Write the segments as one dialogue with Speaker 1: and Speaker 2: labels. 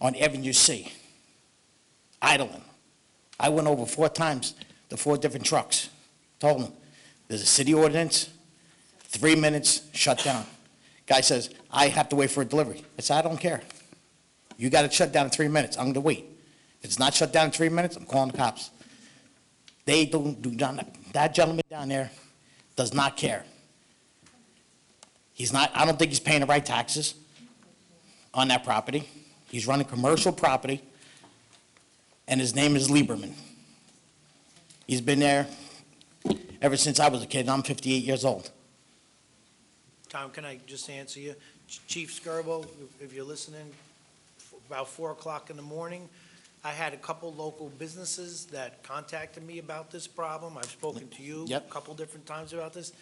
Speaker 1: on Avenue C, idling. I went over four times, the four different trucks. Told them, there's a city ordinance, three minutes, shut down. Guy says, I have to wait for a delivery. I said, I don't care. You got it shut down in three minutes, I'm gonna wait. If it's not shut down in three minutes, I'm calling the cops. They don't do, not, that gentleman down there does not care. He's not, I don't think he's paying the right taxes on that property. He's running commercial property, and his name is Lieberman. He's been there ever since I was a kid, and I'm 58 years old.
Speaker 2: Tom, can I just answer you? Ch- Chief Skirbo, if- if you're listening, f- about 4 o'clock in the morning, I had a couple local businesses that contacted me about this problem. I've spoken to you a
Speaker 1: Yep.
Speaker 2: couple different times about this.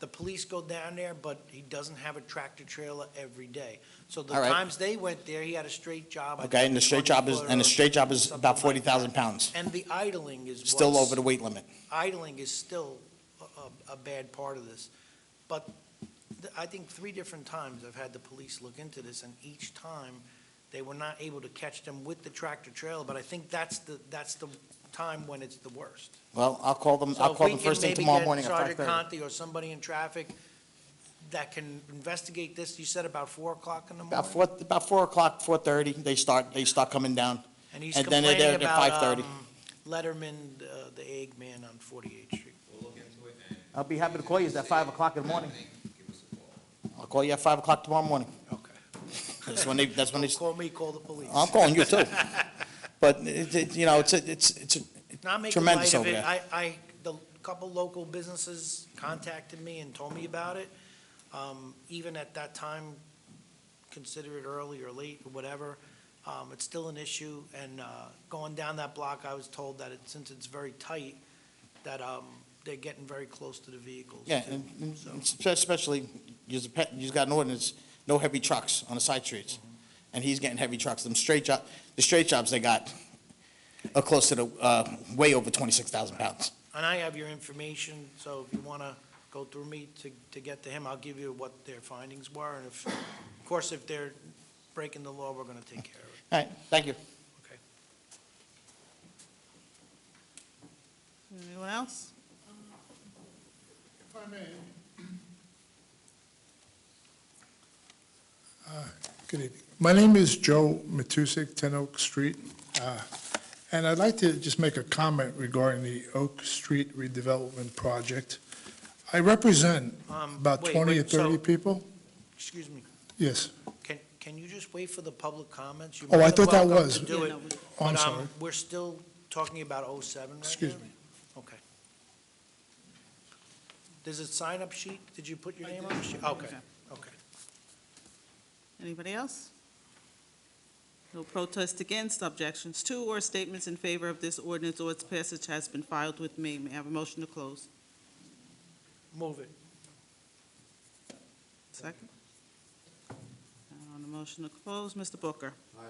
Speaker 2: The police go down there, but he doesn't have a tractor trailer every day. So the
Speaker 1: All right.
Speaker 2: times they went there, he had a straight job. I
Speaker 1: Okay,
Speaker 2: think
Speaker 1: and the straight
Speaker 2: one
Speaker 1: job is,
Speaker 2: foot
Speaker 1: and
Speaker 2: or
Speaker 1: the straight job is
Speaker 2: something
Speaker 1: about
Speaker 2: like
Speaker 1: 40,000
Speaker 2: that.
Speaker 1: pounds,
Speaker 2: And the idling is what's...
Speaker 1: still over the weight limit.
Speaker 2: idling is still a, a- a bad part of this. But th- I think three different times I've had the police look into this, and each time, they were not able to catch them with the tractor trailer, but I think that's the, that's the time when it's the worst.
Speaker 1: Well, I'll call them,
Speaker 2: So
Speaker 1: I'll
Speaker 2: if
Speaker 1: call
Speaker 2: we
Speaker 1: them
Speaker 2: can
Speaker 1: first thing
Speaker 2: maybe
Speaker 1: tomorrow
Speaker 2: get
Speaker 1: morning at
Speaker 2: Sergeant
Speaker 1: 5:30.
Speaker 2: Conti or somebody in traffic that can investigate this, you said about four o'clock in the morning?
Speaker 1: About 4, about 4 o'clock, 4:30, they start, they start coming down.
Speaker 2: And he's
Speaker 1: and then they're there
Speaker 2: complaining
Speaker 1: at
Speaker 2: about
Speaker 1: 5:30.
Speaker 2: um, Letterman, uh, the egg man on 48th Street.
Speaker 1: I'll be happy to call you, it's at 5 o'clock in the morning. I'll call you at 5 o'clock tomorrow morning.
Speaker 2: Okay.
Speaker 1: That's when they, that's when they,
Speaker 2: Call me, call the police.
Speaker 1: I'm calling you too. But, it- it- you know, it's, a- it's, it's, a-
Speaker 2: Not making
Speaker 1: Tremendous
Speaker 2: light of
Speaker 1: over
Speaker 2: it.
Speaker 1: there.
Speaker 2: I, I, the couple local businesses contacted me and told me about it. Um, even at that time, consider it early or late or whatever, um, it's still an issue. And, uh, going down that block, I was told that it, since it's very tight, that, um, they're getting very close to the vehicles.
Speaker 1: yeah,
Speaker 2: too.
Speaker 1: and- and spe- especially, you's a pet- you's got an ordinance, no heavy trucks on the side streets. And he's getting heavy trucks, them straight job, the straight jobs they got are close to the, uh, way over 26,000 pounds.
Speaker 2: And I have your information, so if you want to go through me to, to get to him, I'll give you what their findings were. And if, of course, if they're breaking the law, we're going to take care of it.
Speaker 1: All right, thank you.
Speaker 3: Anyone else?
Speaker 4: If I may. Uh, Good evening. My name is Joe Matusik, 10 Oak Street. Uh, And I'd like to just make a comment regarding the Oak Street redevelopment project. I represent
Speaker 2: Um,
Speaker 4: about
Speaker 2: wait,
Speaker 4: 20 or
Speaker 2: wait, so-
Speaker 4: 30 people.
Speaker 2: Excuse me,
Speaker 4: Yes,
Speaker 2: can, can you just wait for the public comments? You're
Speaker 4: Oh, I
Speaker 2: more than
Speaker 4: thought that
Speaker 2: welcome
Speaker 4: was.
Speaker 2: to do
Speaker 3: Yeah,
Speaker 2: it,
Speaker 3: no, we-
Speaker 4: Oh, I'm
Speaker 2: but, um,
Speaker 4: sorry.
Speaker 2: We're still talking about 07 right now?
Speaker 4: Excuse me.
Speaker 2: Okay. There's a sign-up sheet, did you put your name on the sheet? Okay,
Speaker 3: Okay.
Speaker 2: okay.
Speaker 3: Anybody else? No protest against, objections to, or statements in favor of this ordinance or its passage has been filed with me. May I have a motion to close?
Speaker 2: Move it.
Speaker 3: Second? And On the motion to close, Mr. Booker? Aye.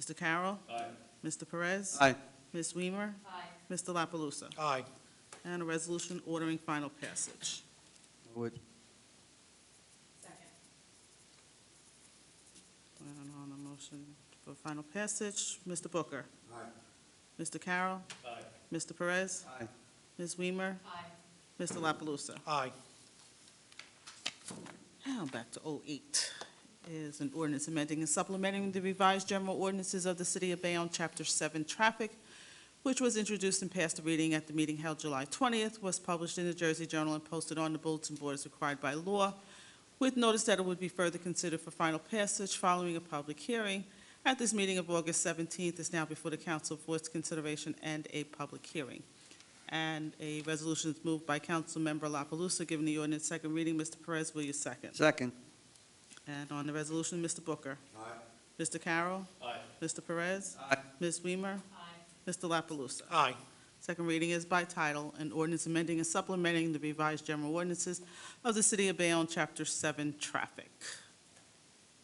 Speaker 3: Mr. Carroll? Aye. Mr. Perez?
Speaker 5: Aye.
Speaker 3: Ms. Weimer? Aye. Mr. La Palusa?
Speaker 2: Aye.
Speaker 3: And a resolution ordering final passage.
Speaker 5: Move it.
Speaker 3: And on the motion for final passage, Mr. Booker? Aye. Mr. Carroll? Aye. Mr. Perez?
Speaker 5: Aye.
Speaker 3: Ms. Weimer? Aye. Mr. La Palusa?
Speaker 2: Aye.
Speaker 3: Now, back to 08, is an ordinance amending and supplementing the revised general ordinances of the City of Bayonne, Chapter 7, Traffic, which was introduced and passed a reading at the meeting held July 20th, was published in the Jersey Journal and posted on the bulletin board as required by law, with notice that it would be further considered for final passage following a public hearing. At this meeting of August 17th, is now before the council for its consideration and a public hearing. And a resolution is moved by Councilmember La Palusa, giving the ordinance second reading. Mr. Perez, will you second?
Speaker 5: Second.
Speaker 3: And on the resolution, Mr. Booker. Aye. Mr. Carroll. Aye. Mr. Perez.
Speaker 5: Aye.
Speaker 3: Ms. Weimer. Aye. Mr. La Palusa.
Speaker 2: Aye.
Speaker 3: Second reading is by title, an ordinance amending and supplementing the revised general ordinances of the City of Bayonne, Chapter 7, Traffic.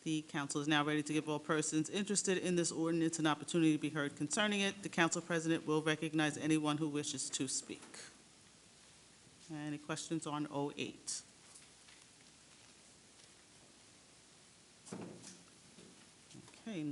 Speaker 3: The council is now ready to give all persons interested in this ordinance an opportunity to be heard concerning it. The council president will recognize anyone who wishes to speak. Any questions on 08?